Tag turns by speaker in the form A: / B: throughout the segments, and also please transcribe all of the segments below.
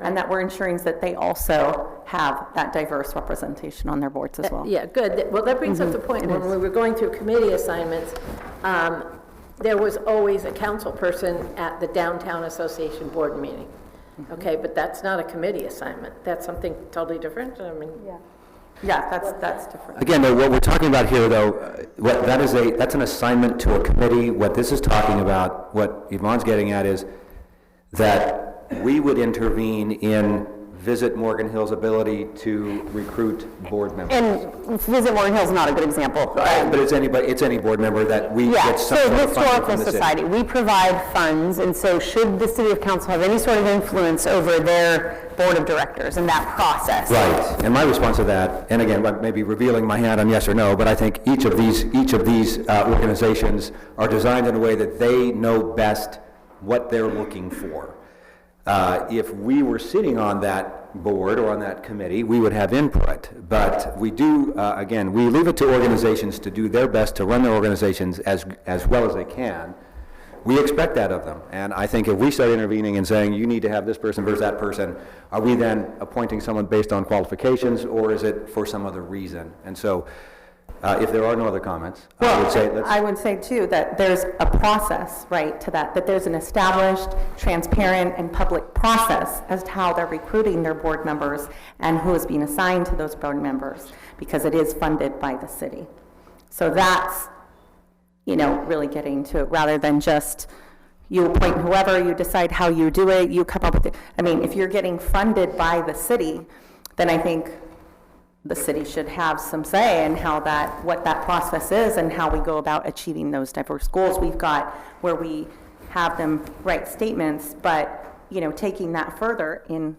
A: and that we're ensuring that they also have that diverse representation on their boards
B: Uh,
A: as well.
C: Yeah, good. That- Well, that brings up the point, when we were going through committee assignments, um, there was always a council person at the downtown association board meeting. Okay, but that's not a committee assignment. That's something totally different, I mean.
A: Yeah, that's, that's different.
D: Again, though, what we're talking about here, though, uh, what, that is a, that's an assignment to a committee. What this is talking about, what Yvonne's getting at is that we would intervene in Visit Morgan Hill's ability to recruit board members.
B: And Visit Warren Hill's not a good example.
D: But it's anybody, it's any board member that we
B: Yeah,
D: get some
B: so
D: sort of funding
B: Historical
D: from the city.
B: Society, we provide funds, and so should the city of council have any sort of influence over their board of directors and that process?
D: Right, and my response to that, and again, I may be revealing my hand on yes or no, but I think each of these, each of these uh, organizations are designed in a way that they know best what they're looking for. Uh, If we were sitting on that board or on that committee, we would have input, but we do, uh, again, we leave it to organizations to do their best to run their organizations as, as well as they can. We expect that of them, and I think if we start intervening and saying, you need to have this person versus that person, are we then appointing someone based on qualifications, or is it for some other reason? And so, uh, if there are no other comments, I would say,
A: Well,
D: let's,
A: I would say too, that there's a process, right, to that, that there's an established, transparent, and public process as to how they're recruiting their board members and who is being assigned to those board members, because it is funded by the city. So that's, you know, really getting to it, rather than just you appoint whoever, you decide how you do it, you come up with it. I mean, if you're getting funded by the city, then I think the city should have some say in how that, what that process is and how we go about achieving those diverse goals we've got, where we have them write statements, but, you know, taking that further in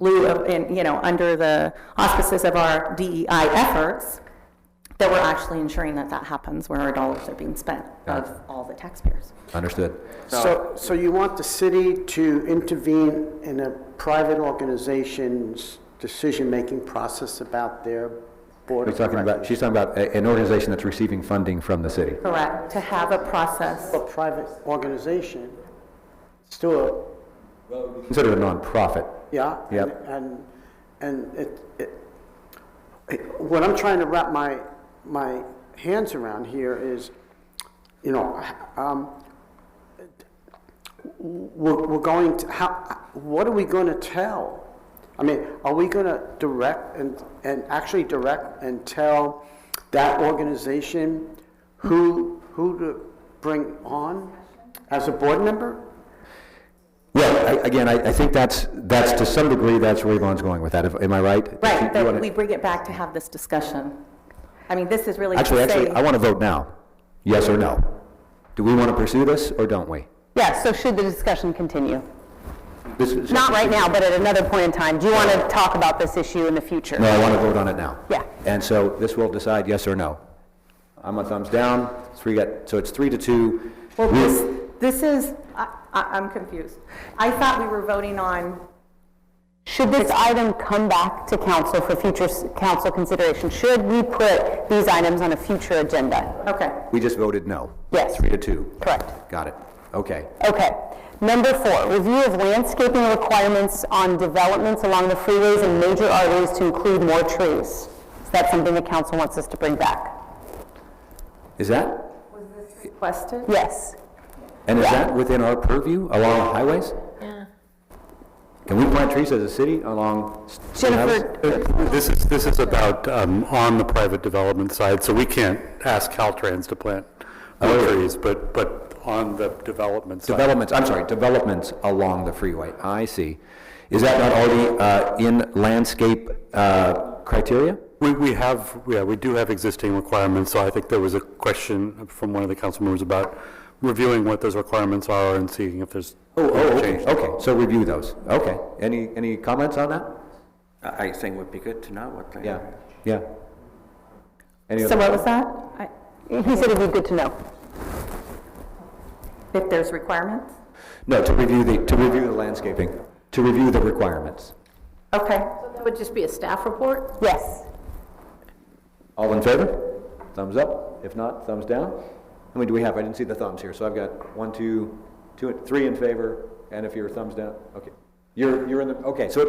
A: lieu of, in, you know, under the auspices of our DEI efforts, that we're actually ensuring that that happens, where our dollars are being spent of all the taxpayers.
D: understood.
E: So, so you want the city to intervene in a private organization's decision-making process about their board
D: We're
E: of
D: talking about,
E: directors?
D: she's talking about a- an organization that's receiving funding from the city.
A: Correct, to have a process.
E: A private organization, still,
D: Considered a nonprofit.
E: a- yeah?
D: Yep.
E: And, and it, it, it- what I'm trying to wrap my, my hands around here is, you know, um, we're, we're going to, how, what are we going to tell? I mean, are we going to direct and, and actually direct and tell that organization who, who to bring on as a board member?
D: Well, I- again, I, I think that's, that's to some degree, that's where Yvonne's going with that, If- am I right? If you- you
A: Right,
D: wanna-
A: that we bring it back to have this discussion. I mean, this is really to
D: Actually, actually,
A: say-
D: I want to vote now, yes or no. Do we want to pursue this, or don't we?
B: Yeah, so should the discussion continue?
D: This is-
B: Not right now, but at another point in time, do you want to talk about this issue in the future?
D: No, I want to vote on it now.
B: Yeah.
D: And so this will decide yes or no. I'm a thumbs down, three got, so it's three to two.
A: Well,
D: We-
A: this, this is, I, I- I'm confused. I thought we were voting on,
B: Should this item come back to council for future s- council consideration? Should we put these items on a future agenda?
A: okay,
D: We just voted no,
B: Yes,
D: three to two.
B: correct.
D: Got it, okay.
B: Okay. Number four, review of landscaping requirements on developments along the freeways and major arteries to include more trees. Is that something the council wants us to bring back?
D: Is that,
A: requested?
B: Yes.
D: and is that within our purview along highways?
C: Yeah.
D: Can we plant trees as a city along? s- state highways?
B: Jennifer,
F: This is, this is about um, on the private development side, so we can't ask Caltrans to plant more trees, but, but on the development side.
D: Developments, I'm sorry, developments along the freeway, I see. Is that not already uh, in landscape uh, criteria?
F: We, we have, yeah, we do have existing requirements, so I think there was a question from one of the council members about reviewing what those requirements are and seeing if there's.
D: Oh, oh, okay,
F: change.
D: okay, so review those, okay. Any, any comments on that?
G: I I think would be good to know what they
D: Yeah, yeah. Any
A: So
D: other-
A: what was that? I-
B: he said it'd be good to know.
A: If there's requirements?
D: No, to review the, to review the landscaping, to review the requirements.
A: Okay,
C: That would just be a staff report?
B: Yes.
D: All in favor? Thumbs up, if not, thumbs down. How many do we have? I didn't see the thumbs here, so I've got one, two, two, three in favor, and if you're thumbs down, okay. You're, you're in the, okay, so it